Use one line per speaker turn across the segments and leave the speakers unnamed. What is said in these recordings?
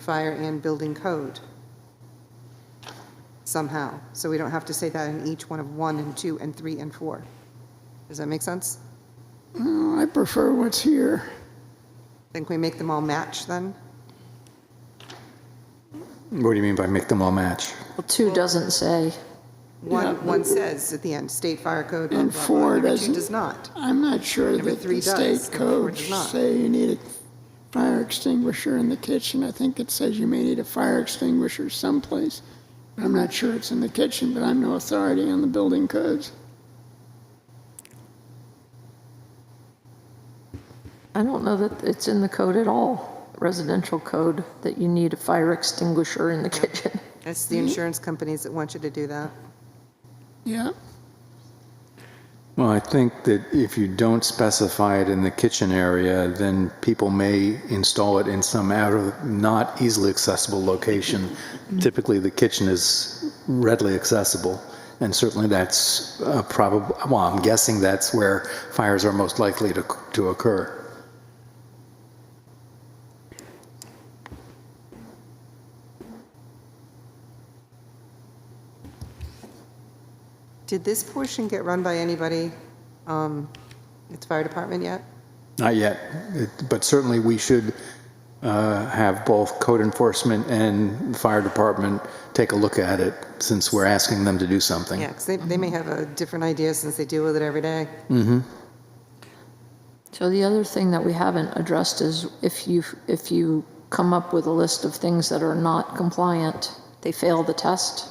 fire and building code somehow. So we don't have to say that in each one of one and two and three and four. Does that make sense?
Uh, I prefer what's here.
Think we make them all match then?
What do you mean by make them all match?
Well, two doesn't say.
One, one says at the end, state fire code, blah,
And
blah, blah.
four
Number two
doesn't.
does not.
I'm not sure
Number
that
three
the
does,
state
number four
codes
does not.
say you need a fire extinguisher in the kitchen. I think it says you may need a fire extinguisher someplace. I'm not sure it's in the kitchen, but I'm no authority on the building codes.
I don't know that it's in the code at all, residential code, that you need a fire extinguisher in the kitchen.
It's
Mm-hmm.
the insurance companies that want you to do that.
Yeah,
Well, I think that if you don't specify it in the kitchen area, then people may install it in some out of not easily accessible location. Typically, the kitchen is readily accessible, and certainly that's uh, probably, well, I'm guessing that's where fires are most likely to, to occur.
Did this portion get run by anybody, um, its fire department yet?
Not yet, It- but certainly we should uh, have both code enforcement and fire department take a look at it, since we're asking them to do something.
Yeah, because they, they may have a different idea since they deal with it every day.
So the other thing that we haven't addressed is if you, if you come up with a list of things that are not compliant, they fail the test,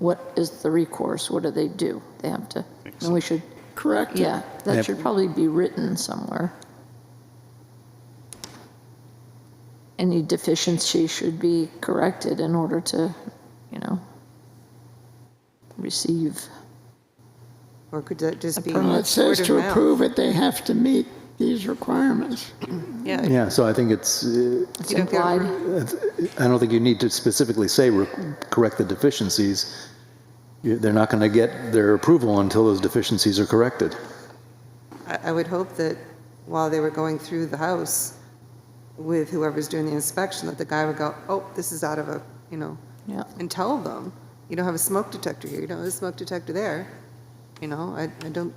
what is the recourse? What do they do? They have to, and we should,
correct.
yeah,
Yep.
that should probably be written somewhere. Any deficiency should be corrected in order to, you know, receive.
Or could that just be
Well, it says
word of
to
mouth?
approve it, they have to meet these requirements.
Yeah,
Yeah, so I think it's, uh,
It's
You don't get a
implied.
I don't think you need to specifically say re- correct the deficiencies. You- They're not going to get their approval until those deficiencies are corrected.
I, I would hope that while they were going through the house with whoever's doing the inspection, that the guy would go, oh, this is out of a, you know,
Yeah.
and tell them, you don't have a smoke detector here, you don't have a smoke detector there. You know, I, I don't,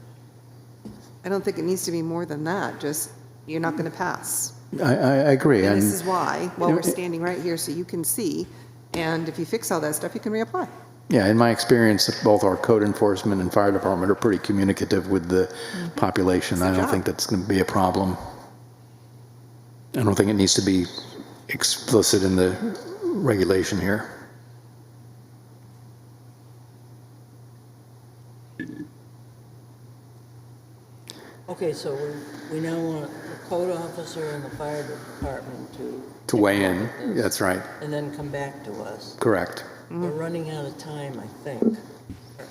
I don't think it needs to be more than that, just, you're not going to pass.
I, I I agree,
And
and
this is why, while we're standing right here, so you can see, and if you fix all that stuff, you can reapply.
yeah, in my experience, both our code enforcement and fire department are pretty communicative with the population. I don't
Mm-hmm. job.
think that's going to be a problem. I don't think it needs to be explicit in the regulation here.
Okay, so we- we now want the code officer and the fire department to,
To weigh in, that's right,
and then come back to us.
correct.
We're running out of time, I think.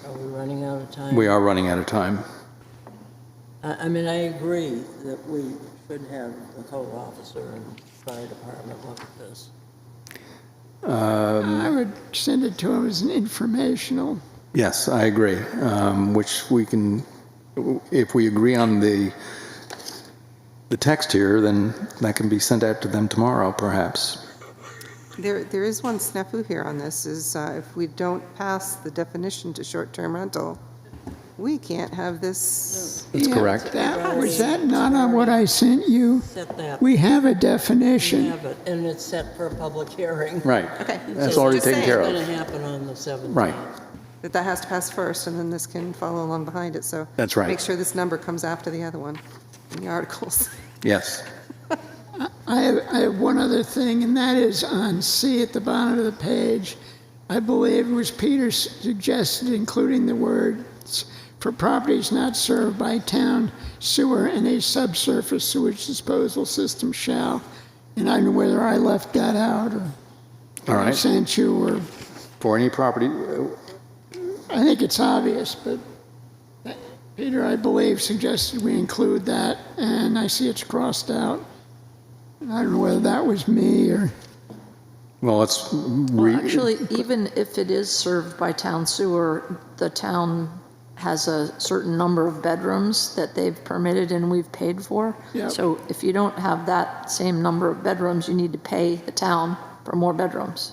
Are we running out of time?
We are running out of time.
I, I mean, I agree that we should have the code officer and fire department look at this.
I would send it to them as an informational.
Yes, I agree, um, which we can, if we agree on the, the text here, then that can be sent out to them tomorrow, perhaps.
There, there is one snafu here on this, is uh, if we don't pass the definition to short-term rental, we can't have this,
That's
Yeah,
correct.
That, was that not on what I sent you?
Set that,
We have a
we
definition.
have it, and it's set for a public hearing.
Right.
Okay,
That's
so
already
just
taken
saying.
care
It's
of.
gonna happen on the 17th.
Right.
that that has to pass first, and then this can follow along behind it, so.
That's right.
Make sure this number comes after the other one in the articles.
Yes.
I have, I have one other thing, and that is on C at the bottom of the page. I believe it was Peter s- suggested including the words for properties not served by town sewer and a subsurface sewage disposal system shall. And I don't know whether I left that out or
All
I
right.
sent you, or
For any property, uh,
I think it's obvious, but Peter, I believe, suggested we include that, and I see it's crossed out. And I don't know whether that was me or.
well, let's
Well,
re,
actually, even if it is served by town sewer, the town has a certain number of bedrooms that they've permitted and we've paid for.
Yep.
So if you don't have that same number of bedrooms, you need to pay the town for more bedrooms.